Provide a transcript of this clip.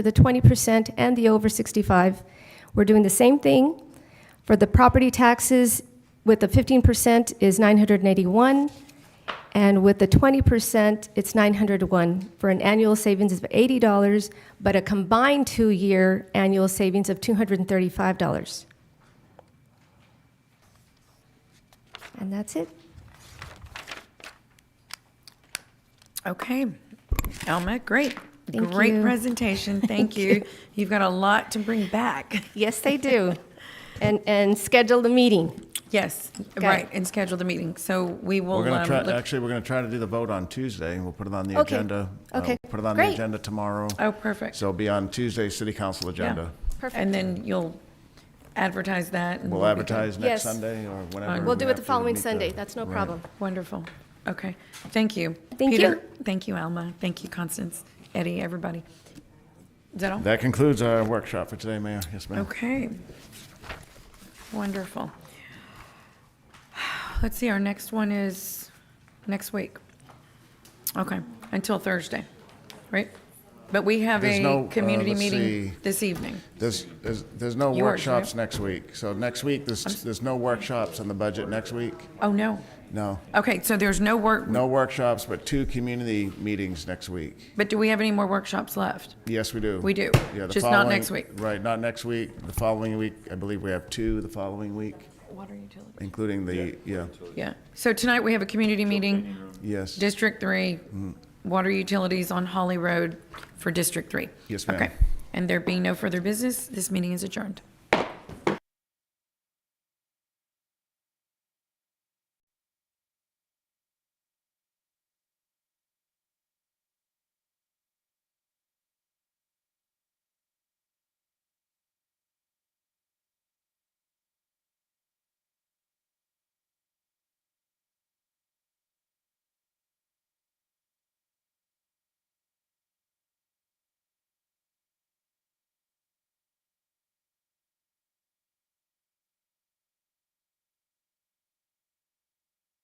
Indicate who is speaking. Speaker 1: the 20% and the over 65. We're doing the same thing. For the property taxes with the 15% is 981, and with the 20%, it's 901, for an annual savings of $80, but a combined two-year annual savings of $235. And that's it.
Speaker 2: Okay. Alma, great.
Speaker 1: Thank
Speaker 2: Great
Speaker 1: you.
Speaker 2: presentation. Thank you. You've got a lot to bring back.
Speaker 1: Yes, they do. And, and schedule the meeting.
Speaker 2: Yes,
Speaker 1: Okay.
Speaker 2: right, and schedule the meeting. So we will.
Speaker 3: We're going
Speaker 2: um,
Speaker 3: to try,
Speaker 2: look-
Speaker 3: actually, we're going to try to do the vote on Tuesday. We'll put it on the
Speaker 1: Okay.
Speaker 3: agenda. uh,
Speaker 1: Okay.
Speaker 3: Put it on the
Speaker 1: Great.
Speaker 3: agenda tomorrow.
Speaker 2: Oh, perfect.
Speaker 3: So it'll be on Tuesday's city council
Speaker 2: Yeah.
Speaker 3: agenda.
Speaker 1: Perfect.
Speaker 2: And then you'll advertise that. and
Speaker 3: We'll
Speaker 2: we'll be
Speaker 3: advertise
Speaker 1: Yes.
Speaker 3: next Sunday or whenever.
Speaker 1: We'll
Speaker 3: we
Speaker 1: do
Speaker 3: have
Speaker 1: it the
Speaker 3: to
Speaker 1: following
Speaker 3: meet
Speaker 1: Sunday, that's no
Speaker 3: Right.
Speaker 1: problem.
Speaker 2: good. Wonderful. Okay. Thank you.
Speaker 1: Thank
Speaker 2: Peter, Thank you, Alma. Thank you, Constance, Eddie, everybody. Is that all?
Speaker 3: That concludes our workshop for today, Mayor. Yes, ma'am.
Speaker 2: Okay. Wonderful. Let's see, our next one is next week. Okay, until Thursday, right? But we have
Speaker 3: There's
Speaker 2: a
Speaker 3: no, uh,
Speaker 2: community
Speaker 3: let's
Speaker 2: meeting
Speaker 3: see.
Speaker 2: this evening.
Speaker 3: There's, there's, there's no
Speaker 2: Yours, right?
Speaker 3: workshops next week. So next week, there's, there's no workshops on the budget next week?
Speaker 2: Oh, no.
Speaker 3: No.
Speaker 2: Okay, so there's no work,
Speaker 3: No workshops, but two community meetings next week.
Speaker 2: but do we have any more workshops left?
Speaker 3: Yes, we do.
Speaker 2: We do.
Speaker 3: Yeah, the
Speaker 2: Just not
Speaker 3: following-
Speaker 2: next week.
Speaker 3: Right, not next week. The following week, I believe we have two the following week,
Speaker 2: Water utility.
Speaker 3: including the, yeah,
Speaker 2: Yeah. So tonight we have a community meeting,
Speaker 3: yes.
Speaker 2: District Three,
Speaker 3: Mm.
Speaker 2: water utilities on Holly Road for District Three.
Speaker 3: Yes, ma'am.
Speaker 2: Okay. And there being no further business, this meeting is adjourned.